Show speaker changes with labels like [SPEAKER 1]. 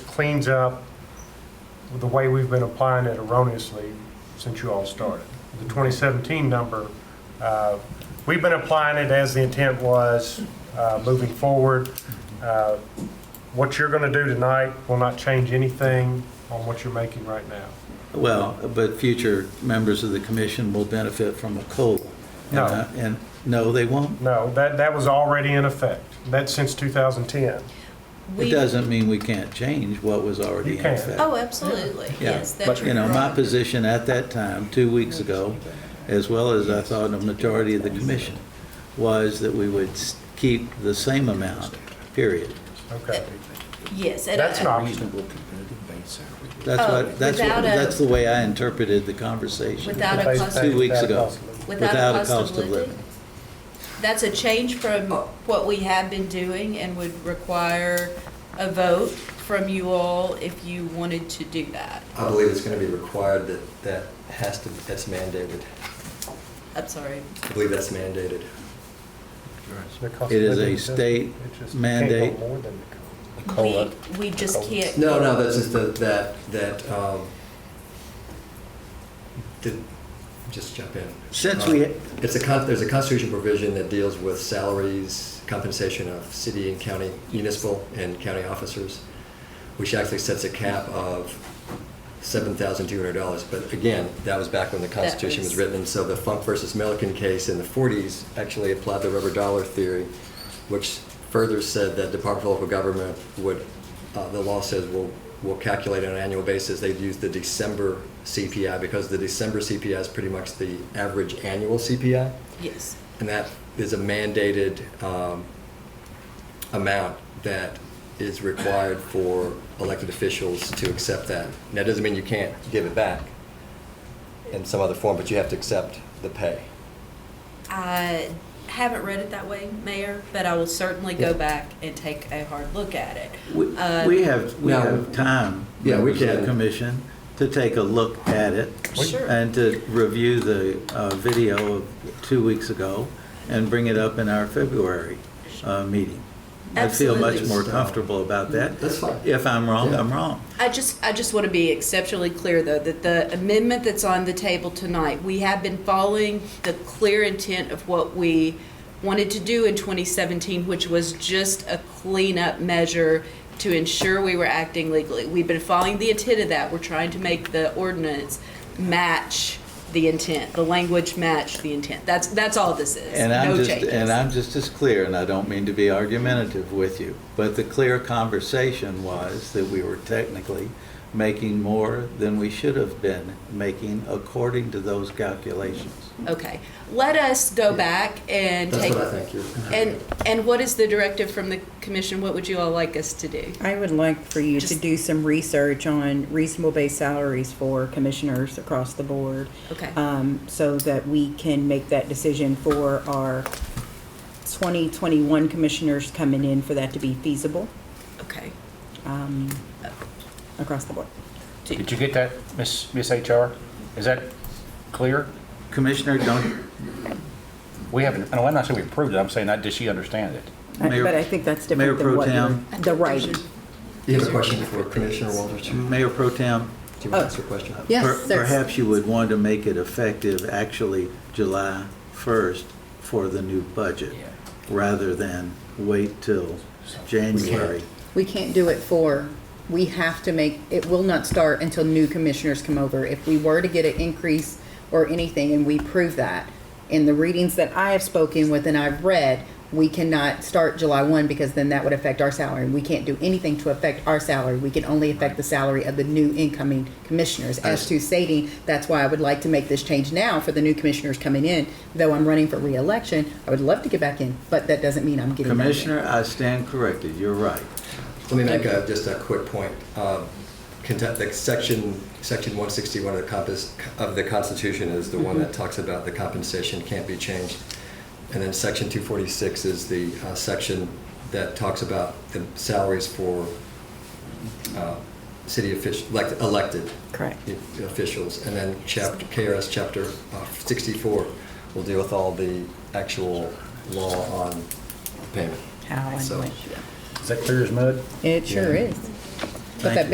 [SPEAKER 1] cleans up the way we've been applying it erroneously since you all started. The 2017 number, uh, we've been applying it as the intent was uh, moving forward. Uh, What you're going to do tonight will not change anything on what you're making right now.
[SPEAKER 2] Well, but future members of the commission will benefit from a COLA.
[SPEAKER 1] No.
[SPEAKER 2] And, uh, And, no, they won't.
[SPEAKER 1] No, that, that was already in effect. That's since 2010.
[SPEAKER 2] It
[SPEAKER 3] We-
[SPEAKER 2] doesn't mean we can't change what was already
[SPEAKER 1] You
[SPEAKER 2] in
[SPEAKER 1] can.
[SPEAKER 2] effect.
[SPEAKER 3] Oh, absolutely,
[SPEAKER 2] Yeah,
[SPEAKER 3] yes, that's
[SPEAKER 2] But, you know, my
[SPEAKER 3] right.
[SPEAKER 2] position at that time, two weeks ago, as well as I thought a majority of the commission, was that we would s- keep the same amount, period.
[SPEAKER 1] Okay.
[SPEAKER 3] Yes. and I-
[SPEAKER 1] That's an option.
[SPEAKER 4] Reasonable competitive base salary.
[SPEAKER 2] That's
[SPEAKER 3] Oh,
[SPEAKER 2] what, that's what,
[SPEAKER 3] without a-
[SPEAKER 2] that's the way I interpreted the conversation.
[SPEAKER 3] Without a
[SPEAKER 1] They-
[SPEAKER 3] cost-
[SPEAKER 1] they-
[SPEAKER 2] Two weeks
[SPEAKER 1] that
[SPEAKER 2] ago.
[SPEAKER 1] possible.
[SPEAKER 3] Without a cost of living. That's a change from what we have been doing and would require a vote from you all if you wanted to do that.
[SPEAKER 5] I believe it's going to be required that that has to, that's mandated.
[SPEAKER 3] I'm sorry,
[SPEAKER 5] I believe that's mandated.
[SPEAKER 1] The cost
[SPEAKER 2] It
[SPEAKER 1] of
[SPEAKER 2] is
[SPEAKER 1] living
[SPEAKER 2] a
[SPEAKER 1] doesn't-
[SPEAKER 2] state
[SPEAKER 1] it just can't go
[SPEAKER 2] mandate.
[SPEAKER 1] more than the cost.
[SPEAKER 3] we, we just can't.
[SPEAKER 5] No, no, that's just the- that, that, um, did- just jump in.
[SPEAKER 2] Since we-
[SPEAKER 5] Uh, It's a, con- there's a constitution provision that deals with salaries, compensation of city and county municipal and county officers, which actually sets a cap of $7,200. But again, that was back when the Constitution was
[SPEAKER 3] was-
[SPEAKER 5] written, and so the Funk versus Milliken case in the 40s actually applied the rubber dollar theory, which further said that Department of Local Government would, uh, the law says, will, will calculate on an annual basis. They'd use the December CPI, because the December CPI is pretty much the average annual CPI,
[SPEAKER 3] Yes,
[SPEAKER 5] and that is a mandated um, amount that is required for elected officials to accept that. And that doesn't mean you can't give it back in some other form, but you have to accept the pay.
[SPEAKER 3] I haven't read it that way, Mayor, but I will certainly go
[SPEAKER 5] Yeah.
[SPEAKER 3] back and take a hard look at it.
[SPEAKER 2] We
[SPEAKER 3] Uh,
[SPEAKER 2] we have, we
[SPEAKER 5] Now-
[SPEAKER 2] have time,
[SPEAKER 5] Yeah, we
[SPEAKER 2] members of the
[SPEAKER 5] can.
[SPEAKER 2] commission, to take a look at it.
[SPEAKER 3] Sure.
[SPEAKER 2] And to review the uh, video of two weeks ago and bring it up in our February uh, meeting. I feel much
[SPEAKER 3] Absolutely.
[SPEAKER 2] more comfortable about that.
[SPEAKER 5] That's fine.
[SPEAKER 2] If I'm wrong,
[SPEAKER 5] Yeah.
[SPEAKER 2] I'm wrong.
[SPEAKER 3] I just, I just want to be exceptionally clear, though, that the amendment that's on the table tonight, we have been following the clear intent of what we wanted to do in 2017, which was just a cleanup measure to ensure we were acting legally. We've been following the intent of that. We're trying to make the ordinance match the intent, the language match the intent. That's, that's all this is.
[SPEAKER 2] And I'm
[SPEAKER 3] No
[SPEAKER 2] just,
[SPEAKER 3] changes.
[SPEAKER 2] and I'm just as clear, and I don't mean to be argumentative with you, but the clear conversation was that we were technically making more than we should have been making according to those calculations.
[SPEAKER 3] Okay. Let us go back and
[SPEAKER 5] That's
[SPEAKER 3] take.
[SPEAKER 5] what I think you're.
[SPEAKER 3] And, and what is the directive from the commission? What would you all like us to do?
[SPEAKER 6] I would like for you to
[SPEAKER 3] Just-
[SPEAKER 6] do some research on reasonable base salaries for commissioners across the board,
[SPEAKER 3] Okay,
[SPEAKER 6] um, so that we can make that decision for our 2021 commissioners coming in for that to be feasible
[SPEAKER 3] okay.
[SPEAKER 6] um, across the board.
[SPEAKER 4] Did you get that, Miss Miss HR? Is that clear?
[SPEAKER 2] Commissioner, don't,
[SPEAKER 4] We haven't, no, I'm not saying we approved it, I'm saying, that- does she understand it?
[SPEAKER 6] I-
[SPEAKER 2] Mayor-
[SPEAKER 6] But I think that's
[SPEAKER 2] Mayor
[SPEAKER 6] different than
[SPEAKER 2] Pro
[SPEAKER 6] what you're-
[SPEAKER 2] Tem.
[SPEAKER 6] the right.
[SPEAKER 5] You have a question for Commissioner Walters? Do you
[SPEAKER 2] Mayor Pro Tem,
[SPEAKER 5] want to ask your question?
[SPEAKER 6] Yes,
[SPEAKER 2] per-
[SPEAKER 6] there's-
[SPEAKER 2] perhaps you would want to make it effective actually July 1st for the new budget,
[SPEAKER 4] Yeah.
[SPEAKER 2] rather than wait till January.
[SPEAKER 7] We can't do it for, we have to make, it will not start until new commissioners come over. If we were to get an increase or anything and we prove that, in the readings that I have spoken with and I've read, we cannot start July one because then that would affect our salary. We can't do anything to affect our salary. We can only affect the salary of the new incoming commissioners. As to stating, that's why I would like to make this change now for the new commissioners coming in. Though I'm running for reelection, I would love to get back in, but that doesn't mean I'm getting back in.
[SPEAKER 2] Commissioner, I stand corrected, you're right.
[SPEAKER 5] Let me make a, just a quick point. Um, Conte- the section, section 161 of the compass, of the Constitution is the one that talks about the compensation can't be changed. And then section 246 is the uh, section that talks about the salaries for uh, city official, elected
[SPEAKER 6] Correct.
[SPEAKER 5] i- officials. And then chapter, KRS chapter uh, 64 will deal with all the actual law on payment.
[SPEAKER 6] How and
[SPEAKER 5] So-
[SPEAKER 6] when.
[SPEAKER 4] Is that clear as mud?
[SPEAKER 7] It sure
[SPEAKER 5] Yeah.
[SPEAKER 7] is.
[SPEAKER 8] But
[SPEAKER 7] Thank
[SPEAKER 8] that
[SPEAKER 7] you.